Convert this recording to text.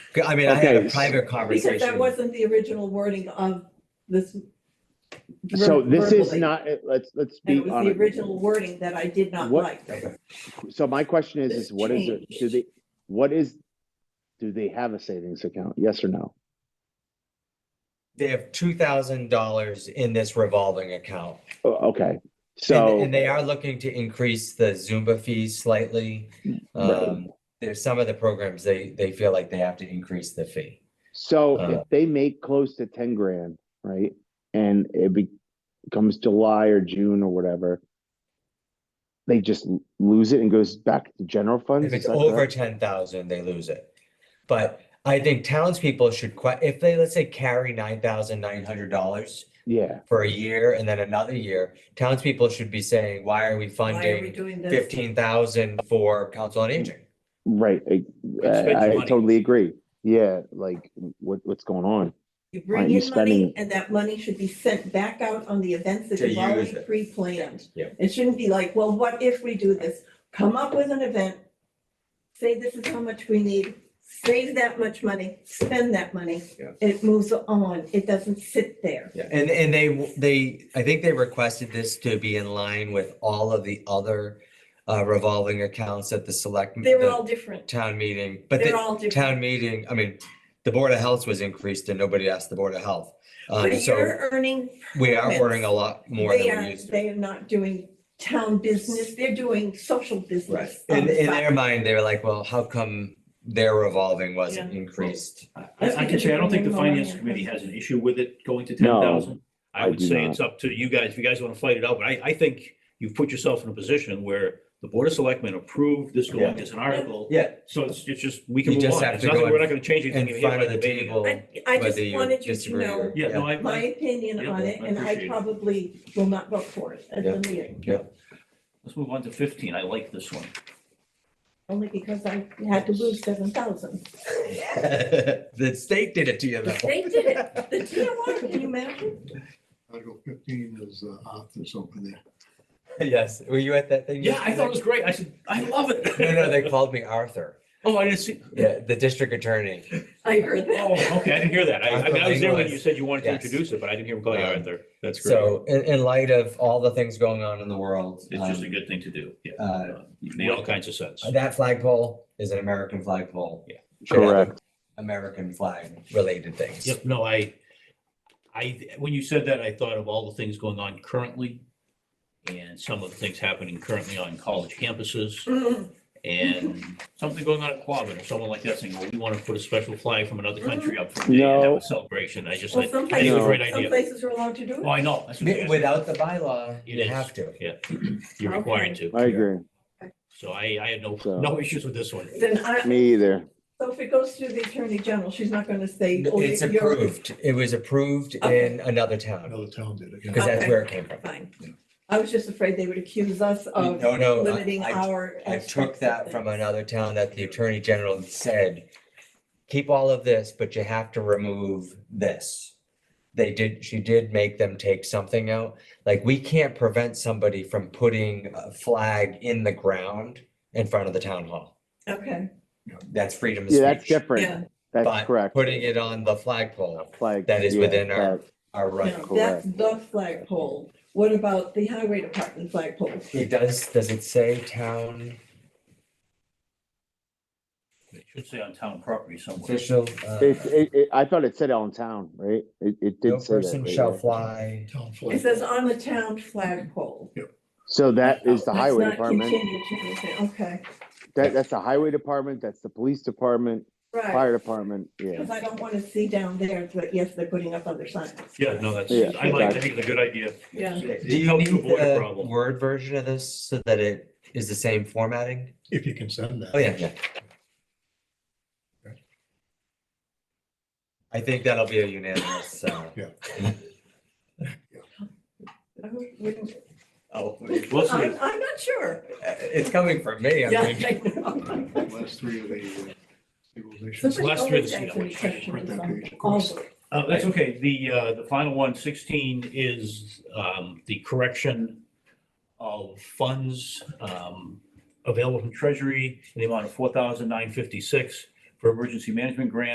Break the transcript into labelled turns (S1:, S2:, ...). S1: I mean, I had
S2: Okay.
S1: a private
S3: Because that
S1: conversation.
S3: wasn't the original wording of this.
S2: So
S3: ver-
S2: this is
S3: verbally,
S2: not, uh, let's, let's
S3: And
S2: be
S3: it was the
S2: honest.
S3: original wording that I did not
S2: What-
S3: like.
S1: Okay.
S2: So my question is, is what is it,
S3: Change.
S2: do they, what is, do they have a savings account? Yes or no?
S1: They have two thousand dollars in this revolving account.
S2: O- Okay,
S1: And,
S2: so,
S1: and they are looking to increase the Zumba fees slightly.
S2: Right.
S1: Um, there's some of the programs, they, they feel like they have to increase the fee.
S2: so
S1: uh,
S2: if they make close to ten grand, right? And it be- becomes July or June or whatever. They just l- lose it and goes back to general funds?
S1: If
S2: is
S1: it's
S2: that
S1: over
S2: correct?
S1: ten thousand, they lose it. But I think townspeople should que- if they, let's say, carry nine thousand nine hundred dollars
S2: Yeah,
S1: for a year and then another year, townspeople should be saying, why are we
S3: Why are we
S1: funding
S3: doing this?
S1: fifteen thousand for council on aging?
S2: right. I-
S4: spend your
S2: I I
S4: money.
S2: totally agree. Yeah, like what, what's going on?
S3: You
S2: Aren't
S3: bring
S2: you
S3: in money
S2: spending-
S3: and that money should be sent back out on the events that
S1: To
S3: you've already
S1: use it.
S3: pre-planned.
S1: Yeah.
S3: It shouldn't be like, well, what if we do this? Come up with an event. Say this is how much we need, save that much money, spend that money.
S1: Yeah.
S3: It moves on. It doesn't sit there.
S1: Yeah, and, and they, w- they, I think they requested this to be in line with all of the other uh, revolving accounts at the select.
S3: They were
S1: the
S3: all different.
S1: Town meeting, but
S3: They're
S1: the
S3: all different.
S1: town meeting, I mean, the Board of Health was increased and nobody asked the Board of Health. Um,
S3: But
S1: so
S3: you're earning.
S1: we are ordering
S3: permits.
S1: a lot more
S3: They
S1: than we
S3: are,
S1: used to.
S3: they are not doing town business. They're doing social
S1: Right.
S3: business. on
S1: In,
S3: the
S1: in
S3: side.
S1: their mind, they were like, well, how come their revolving wasn't increased?
S4: I,
S3: That's
S4: I can
S3: because
S4: say, I don't think the
S3: you're bringing
S4: finance
S3: money in.
S4: committee has an issue with it going to ten
S2: No,
S4: thousand. I
S2: I
S4: would
S2: do
S4: say
S2: not.
S4: it's up to you guys, if you guys want to fight it out, but I, I think you've put yourself in a position where the board of selectmen approved this going as an article.
S1: Yeah.
S4: So it's, it's just, we can
S1: You
S4: move
S1: just
S4: on.
S1: have
S4: It's
S1: to
S4: nothing,
S1: go
S4: we're
S1: and-
S4: not going to change
S1: And
S4: anything. We
S1: front of
S4: haven't
S1: the
S4: debated it.
S1: table,
S3: I, I just
S1: whether you
S3: wanted you to
S1: disagree
S3: know
S1: or.
S4: Yeah, no, I,
S3: my
S4: I,
S3: opinion
S4: Yeah,
S3: on it,
S4: I
S3: and
S4: appreciate
S3: I
S4: it.
S3: probably will not vote for it at
S1: Yeah.
S3: the meeting,
S4: let's move on to fifteen. I like this one.
S3: only because I had to lose seven thousand.
S1: The state did it to you though.
S3: They did it, the DOR, can you imagine?
S5: Article fifteen is uh, Arthur's over there.
S1: Yes, were you at that thing?
S4: Yeah, I thought it was great. I said, I love it.
S1: No, no, they called me Arthur.
S4: Oh, I didn't see.
S1: Yeah, the district attorney.
S3: I heard
S4: Oh,
S3: that.
S4: okay, I didn't hear that. I, I mean, I was there when
S1: Arthur
S4: you said you wanted to
S1: Yes.
S4: introduce it, but I didn't hear him call you
S1: Um,
S4: Arthur. That's great.
S1: So in, in light of all the things going on in the world.
S4: It's just a
S1: um,
S4: good thing to do. Yeah.
S1: uh,
S4: You Made all kinds of sense.
S1: That flagpole is an American flagpole.
S4: Yeah.
S1: Should have
S2: Correct.
S1: American flag related things.
S4: Yep, no, I, I, when you said that, I thought of all the things going on currently and some of the things happening currently on college campuses
S3: Mm,
S4: and something going on at Quabbin or someone like that saying, well, we want to put a special flag from another country up for a day and have
S2: No.
S4: a celebration. I just
S3: Well,
S4: like, I
S3: some
S4: think it was a great
S3: places, some
S4: idea.
S3: places are allowed to do
S4: Oh,
S3: it.
S4: I know. That's what I'm
S1: Mi-
S4: saying.
S1: Without the bylaw, you
S4: It is.
S1: have to.
S4: You're required to.
S2: I agree.
S4: So I, I had no,
S2: So-
S4: no issues with this one.
S3: Then I,
S2: Me either.
S3: so if it goes through the attorney general, she's not gonna say. oh,
S1: It's
S3: you're-
S1: approved. It was approved
S3: Okay.
S1: in another town
S5: Another town did it.
S1: because
S5: yeah.
S1: that's
S3: Okay.
S1: where it came from.
S3: Fine,
S5: Yeah.
S3: I was just afraid they would accuse us of
S1: No, no, I-
S3: limiting
S1: I-
S3: our.
S1: I took
S3: aspects of
S1: that from
S3: things.
S1: another town that the attorney general said, keep all of this, but you have to remove this. They did, she did make them take something out. Like, we can't prevent somebody from putting a flag in the ground in front of the town hall.
S3: Okay,
S1: That's freedom of
S2: Yeah, that's
S1: speech.
S3: yeah,
S2: different. That's
S1: But
S2: correct.
S1: Putting it on the flagpole,
S2: Flag.
S1: that is
S2: yeah,
S1: within our-
S2: flag.
S1: are right.
S3: now, that's the flagpole. What about the highway department flagpole?
S1: It does, does it say town
S4: It should say on town property somewhere.
S1: official? uh,
S2: It, it, it, I thought it said on town, right? It, it
S1: No
S2: did say that.
S1: person
S2: right?
S1: shall fly.
S5: Town
S3: It
S5: flag.
S3: says on the town flagpole.
S2: So that is the
S3: That's
S2: highway
S3: not
S2: department.
S3: continued to anything. Okay,
S2: That, that's the highway department, that's the police department,
S3: right,
S2: fire department, yeah.
S3: because I don't want to see down there, but yes, they're putting up other signs.
S4: Yeah, no, that's,
S2: Yeah,
S4: I like, I think it's a good idea.
S3: Yeah.
S1: Do you
S4: Helps
S1: need
S4: avoid a
S1: the
S4: problem.
S1: Word version of this so that it is the same formatting?
S5: If you can send
S1: Oh,
S5: that.
S1: yeah, yeah. I think that'll be a unanimous, uh.
S5: Yeah.
S3: I wouldn't-
S1: Oh,
S4: We'll see.
S3: I'm, I'm not sure.
S1: it's coming from me, I
S3: Yeah,
S1: mean,
S3: I know.
S5: Last three of the. uh, equalization.
S4: Somebody- last three of the-
S3: Somebody always asks me questions
S5: Print that page,
S3: on
S5: of
S3: all
S5: course.
S3: of it.
S4: Uh, that's okay. The, uh, the final one, sixteen, is, um, the correction of funds, um, available from Treasury in the amount of four thousand nine fifty-six for emergency management grant